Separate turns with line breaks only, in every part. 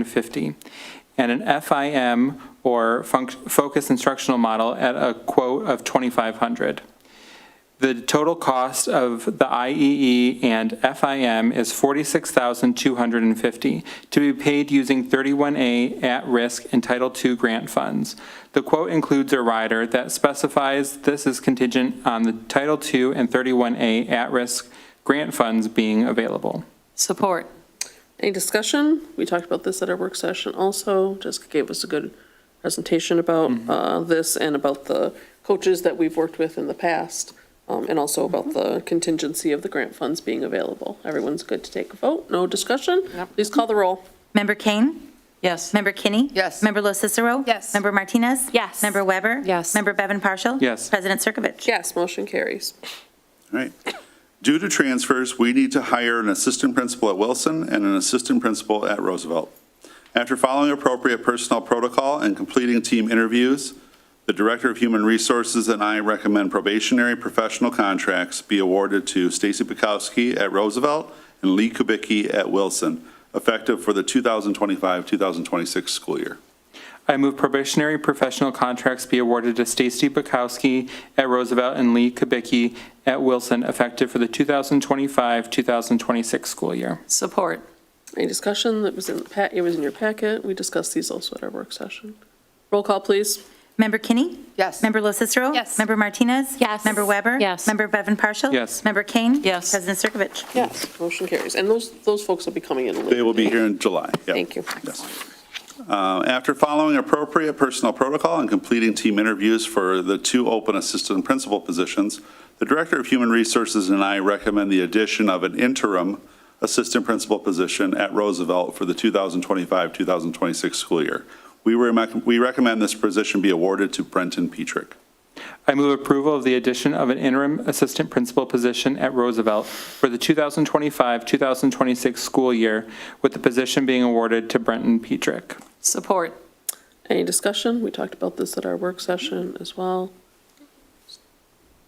150, and an FIM or func- focus instructional model at a quote of 2,500. The total cost of the IEE and FIM is 46250 to be paid using 31A at-risk and Title II grant funds. The quote includes a rider that specifies this is contingent on the Title II and 31A at-risk grant funds being available.
Support.
Any discussion? We talked about this at our work session also. Jessica gave us a good presentation about
Mm-hmm.
uh, this and about the coaches that we've worked with in the past, um, and also about
Mm-hmm.
the contingency of the grant funds being available. Everyone's good to take a vote? No discussion? Please call the roll.
Member Kane?
Yes.
Member Kinney?
Yes.
Member Lo Cicero?
Yes.
Member Martinez?
Yes.
Member Weber?
Yes.
Member Bevan Partial?
Yes.
President Circovich?
Yes, motion carries.
All right. Due to transfers, we need to hire an assistant principal at Wilson and an assistant principal at Roosevelt. After following appropriate personnel protocol and completing team interviews, the Director of Human Resources and I recommend probationary professional contracts be awarded to Stacy Bukowski at Roosevelt and Lee Kubicki at Wilson, effective for the 2025-2026 school year.
I move probationary professional contracts be awarded to Stacy Bukowski at Roosevelt and Lee Kubicki at Wilson effective for the 2025-2026 school year.
Support.
Any discussion? That was in, the pa- it was in your packet. We discussed these also at our work session. Roll call, please.
Member Kinney?
Yes.
Member Lo Cicero?
Yes.
Member Martinez?
Yes.
Member Weber?
Yes.
Member Bevan Partial?
Yes.
Member Kane?
Yes.
President Circovich?
Yes, motion carries. And those, those folks will be coming in a little.
They will be here in July. Yep.
Thank you.
Yes. Uh, After following appropriate personnel protocol and completing team interviews for the two open assistant principal positions, the Director of Human Resources and I recommend the addition of an interim assistant principal position at Roosevelt for the 2025-2026 school year. We recommend we recommend this position be awarded to Brenton Petrick.
I move approval of the addition of an interim assistant principal position at Roosevelt for the 2025-2026 school year, with the position being awarded to Brenton Petrick.
Support.
Any discussion? We talked about this at our work session as well.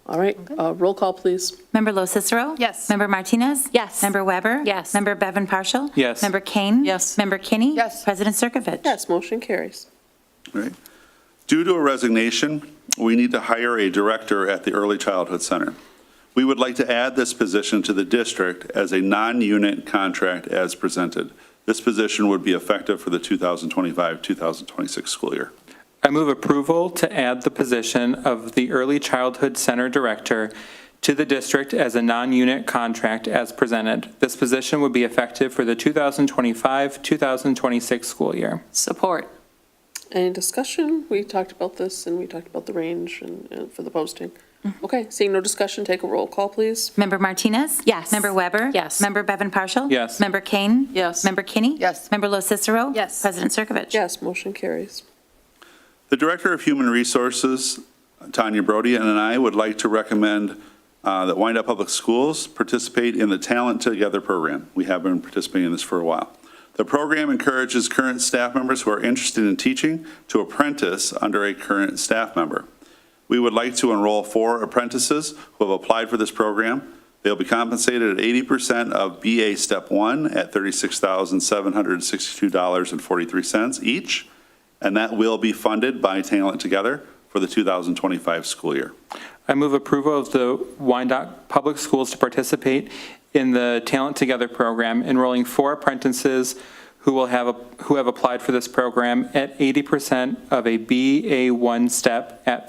All right, uh, roll call, please.
Member Lo Cicero?
Yes.
Member Martinez?
Yes.
Member Weber?
Yes.
Member Bevan Partial?
Yes.
Member Kane?
Yes.
Member Kinney?
Yes.
President Circovich?
Yes, motion carries.
All right. Due to a resignation, we need to hire a director at the Early Childhood Center. We would like to add this position to the district as a non-unit contract as presented. This position would be effective for the 2025-2026 school year.
I move approval to add the position of the Early Childhood Center Director to the district as a non-unit contract as presented. This position would be effective for the 2025-2026 school year.
Support.
Any discussion? We talked about this and we talked about the range and, and for the posting. Okay, seeing no discussion, take a roll call, please.
Member Martinez?
Yes.
Member Weber?
Yes.
Member Bevan Partial?
Yes.
Member Kane?
Yes.
Member Kinney?
Yes.
Member Lo Cicero?
Yes.
President Circovich?
Yes, motion carries.
The Director of Human Resources, Tanya Brody, and I would like to recommend uh, that Wyandotte Public Schools participate in the Talent Together program. We have been participating in this for a while. The program encourages current staff members who are interested in teaching to apprentice under a current staff member. We would like to enroll four apprentices who have applied for this program. They'll be compensated at 80% of BA Step 1 at $36,762.43 each, and that will be funded by Talent Together for the 2025 school year.
I move approval of the Wyandotte Public Schools to participate in the Talent Together program, enrolling four apprentices who will have, who have applied for this program at 80% of a BA1 step at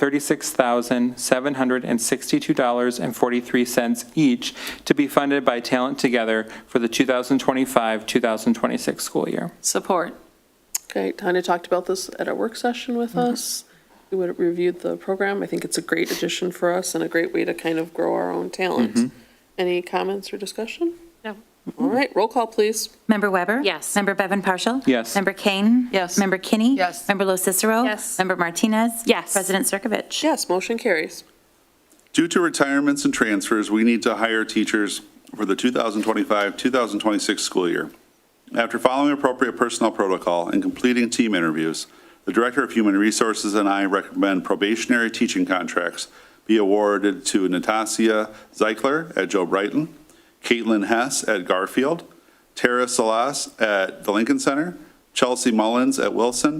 $36,762.43 each to be funded by Talent Together for the 2025-2026 school year.
Support.
Okay, Tanya talked about this at our work session with us. We would have reviewed the program. I think it's a great addition for us and a great way to kind of grow our own talent. Any comments or discussion?
No.
All right, roll call, please.
Member Weber?
Yes.
Member Bevan Partial?
Yes.
Member Kane?
Yes.
Member Kinney?
Yes.
Member Lo Cicero?
Yes.
Member Martinez?
Yes.
President Circovich?
Yes, motion carries.
Due to retirements and transfers, we need to hire teachers for the 2025-2026 school year. After following appropriate personnel protocol and completing team interviews, the Director of Human Resources and I recommend probationary teaching contracts be awarded to Natasia Zeichler at Joe Brighton, Caitlin Hess at Garfield, Tara Salas at the Lincoln Center, Chelsea Mullins at Wilson,